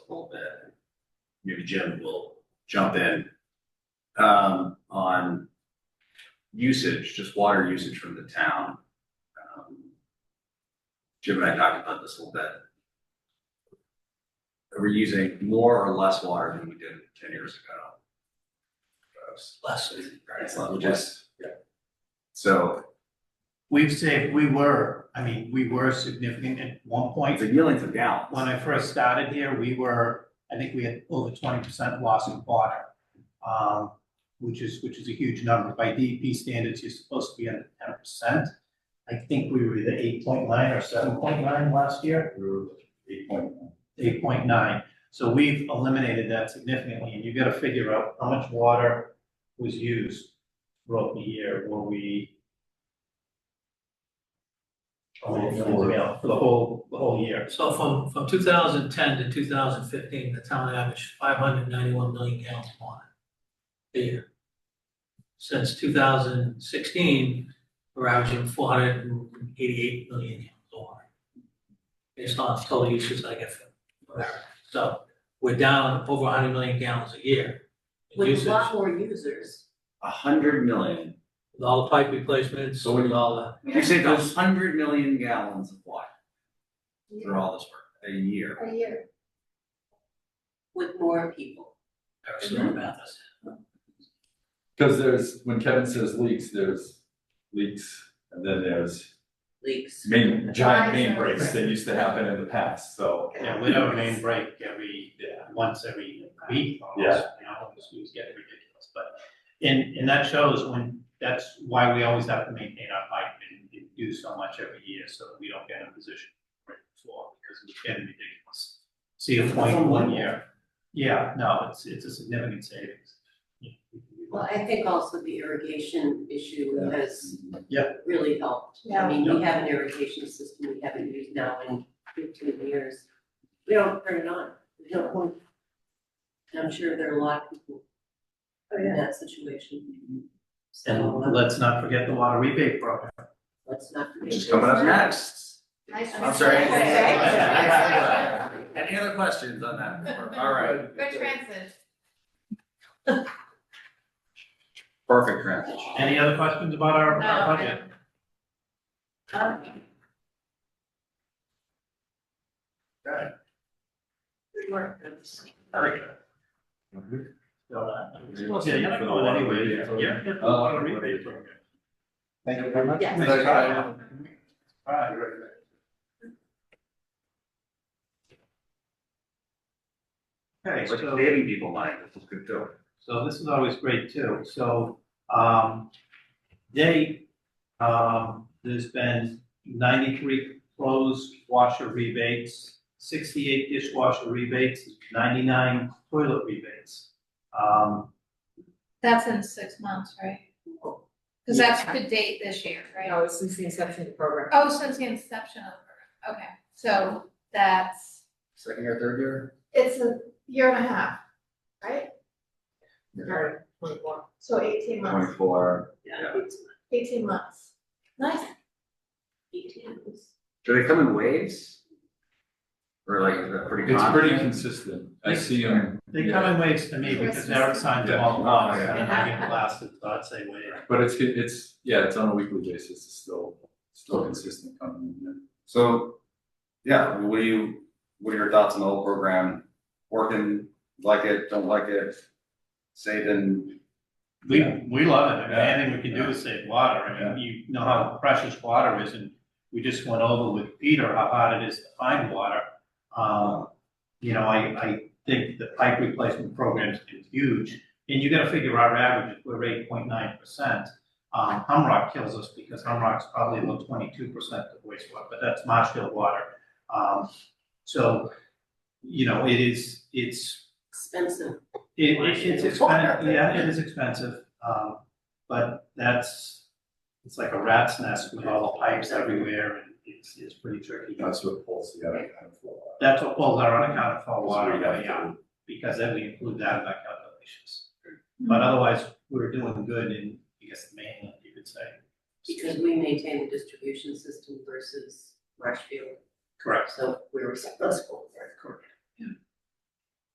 a little bit. Maybe Jim will jump in. Um, on usage, just water usage from the town. Um, Jim and I talked about this a little bit. Are we using more or less water than we did ten years ago? Less. Right, which is. Yeah. So, We've saved, we were, I mean, we were significant at one it's point. a gallons of gallons. When I first started here, we were, I think we had over twenty percent loss in water. Um, which is, which is a huge number. By DEP standards, you're supposed to be under ten percent. I think we were either eight point nine or seven point nine last year. eight point one. eight point nine. So we've eliminated that significantly, and you gotta figure out how much water was used throughout the year, were we? Oh, yeah, yeah, For the whole, the whole year. So from, from two thousand ten to two thousand fifteen, the town averaged five hundred ninety-one million gallons of water a year. Since two thousand sixteen, we're averaging four hundred and eighty-eight million gallons of water. Based on total usage I get from, so we're down over hundred million gallons a year. in with a usage. lot more users. A hundred million. With all the pipe replacements, So when you- with all the, You say those hundred million gallons of water through all this work, a year. A year. With more people. every single math is. Cause there's, when Kevin says leaks, there's leaks, and then there's Leaks. main, giant main Rises. breaks that used to happen in the past, so, Yeah, we have a main break every, yeah. once every week almost. Yeah. You know, this was getting ridiculous, but, and, and that shows when, that's why we always have to maintain our pipe and do so much every year, so that we don't get in a position right before, because it's getting ridiculous. See a point one year, yeah, no, it's, it's a significant savings. Well, I think also the irrigation issue has Yeah. really helped. Yeah. I mean, we have an irrigation system we haven't used now in fifteen years. We don't turn it on, we don't want. I'm sure there are a lot of people in that situation. So And uh, let's not forget the water rebate program. let's not. Which is coming up next. I'm sorry. Any other questions on that? before- All right, Good transit. perfect transition. Any other questions about our, our budget? No. Good work, that's- Very good. Yeah, you're not going anywhere, yeah, yeah. Uh, Water rebate program. Thank you very much. Yes. Thank you. Alright. Okay, Like so, saving people money, this is good too. so this is always great too, so, um, they, um, there's been ninety-three closed washer rebates, sixty-eight dishwasher rebates, ninety-nine toilet rebates. Um, That's in six months, right? Cause that's the date this year, right? No, it's since the inception of the program. Oh, since the inception of the program, okay, so that's, Second or third year? it's a year and a half, right? Or twenty-one. So eighteen months, Twenty-four. Yeah, it's eighteen months. Nice. eighteen months. Do they come in waves? Or like, is that pretty It's pretty common? consistent, I see them, they come in waves to me because Eric signed them all off, and I get blasted, so I'd say wait. but it's, it's, yeah, it's on a weekly basis, it's still, still consistent coming in. So, yeah, what do you, what are your thoughts on the whole program? Working, like it, don't like it? Saving? We, we love it, I mean, Yeah. anything we can do is save water, I mean, you know how precious water is, and we just went over with Peter how hard it is to find water. Um, you know, I, I think the pipe replacement program is huge, and you gotta figure our average, if we're eight point nine percent. Um, Humrock kills us because Humrock's probably about twenty-two percent of wastewater, but that's Marshfield water. Um, so, you know, it is, it's Expensive. it, it- it's expensive, yeah, it is expensive, um, but that's, it's like a rat's nest with all the pipes everywhere and it's, it's pretty tricky. That's what pulls the other kind of flow. That's what pulls our unaccounted for water Because we way have to- out, because then we include that in our calculations. But otherwise, we're doing good in, I guess, the mainland, you could say. Because we maintain the distribution system versus Marshfield, Correct. so we're responsible for it.